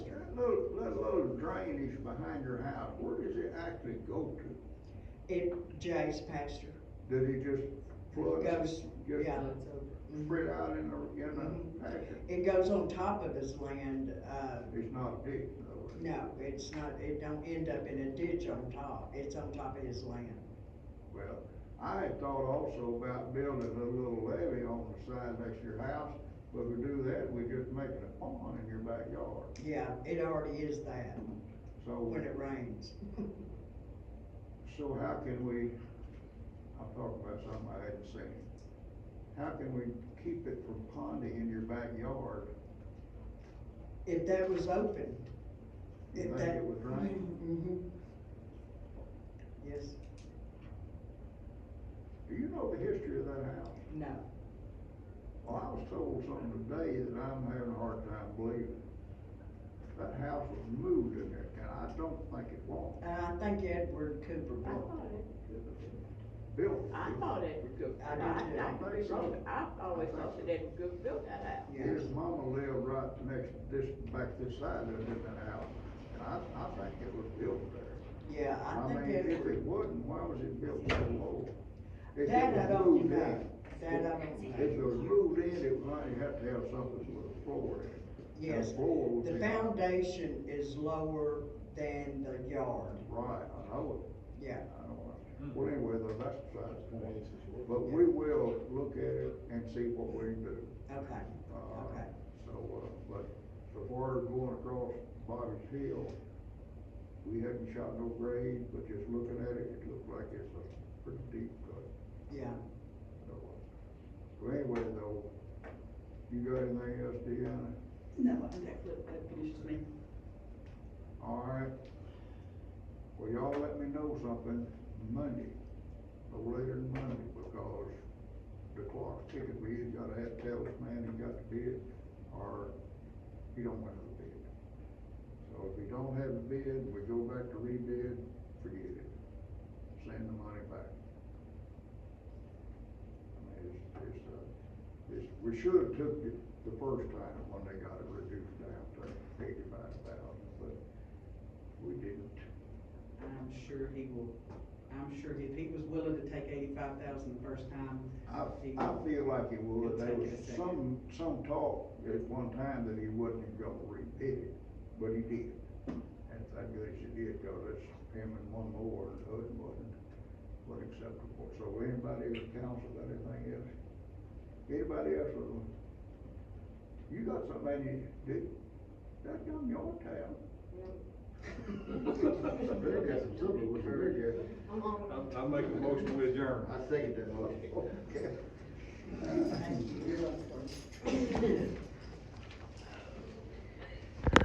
of drain is behind your house, where does it actually go to? It, Jay's pasture. Does it just flood? Goes, Just yeah. It's over. spread out in the, in Mhm. the pasture? It goes on top of his land, uh, It's not deep though. is it? no, it's not, it don't end up in a ditch on top, it's on top of his land. Well, I had thought also about building a little levee on the side next to your house, but we do that, we just make it a pond in your backyard, Yeah, it already is that, so. when it rains. So how can we, I'm talking about something I hadn't seen. How can we keep it from ponding in your backyard? If that was open. You if think that- it would rain? Mhm. Yes, Do you know the history of that house? no, Well, I was told something today that I'm having a hard time believing. That house was moved in there, and I don't think it was Uh, I think Edward Cooper I built thought it, built. I thought it was good, I I do too. I could be wrong, I always thought that it was good built that house. it, His yes. mama lived right next, this, back this side of it in that house, and I, I think it was built there. Yeah, I think mean, if Edward, it wasn't, why was it built so low? If it that I was don't moved in, know, that I If don't it know, was moved in, it might have to have something with a floor in it. And yes. a floor would The be- foundation is lower than the yard, Right, I know yeah. it, I know it. Well, anyway, though, that's besides the point. But But we will look at it and see what we can do. Okay, Uh, okay. So, uh, but so far as going across Bobby's Hill, we haven't shot no grade, but just looking at it, it looks like it's a pretty deep cut. Yeah, So so anyway, though, you got anything else, Deanna? No, I don't. That looked- that finishes me. All right. Well, y'all let me know something Monday, no later than Monday, because the clock's ticking, we either gotta have to tell this man he got the bid, or he don't want the bid. So if we don't have the bid, we go back to rebid, forget it, send the money back. I mean, it's, it's, uh, it's, we should've took it the first time when they got it reduced down to eighty-five thousand, but we didn't. I'm sure he will, I'm sure if he was willing to take eighty-five thousand the first time, I, I feel like it would, there was It's okay, some, some talk at one time that he wasn't gonna rebid it, but he did. And I guess he did, cause it's him and one more, and the other wasn't, wasn't acceptable. So anybody in the council got anything else? Anybody else with them? You got something you did, that's on your town. Big ass, something with the big ass. I'm, I'm making a motion to adjourn. I second that motion. Okay.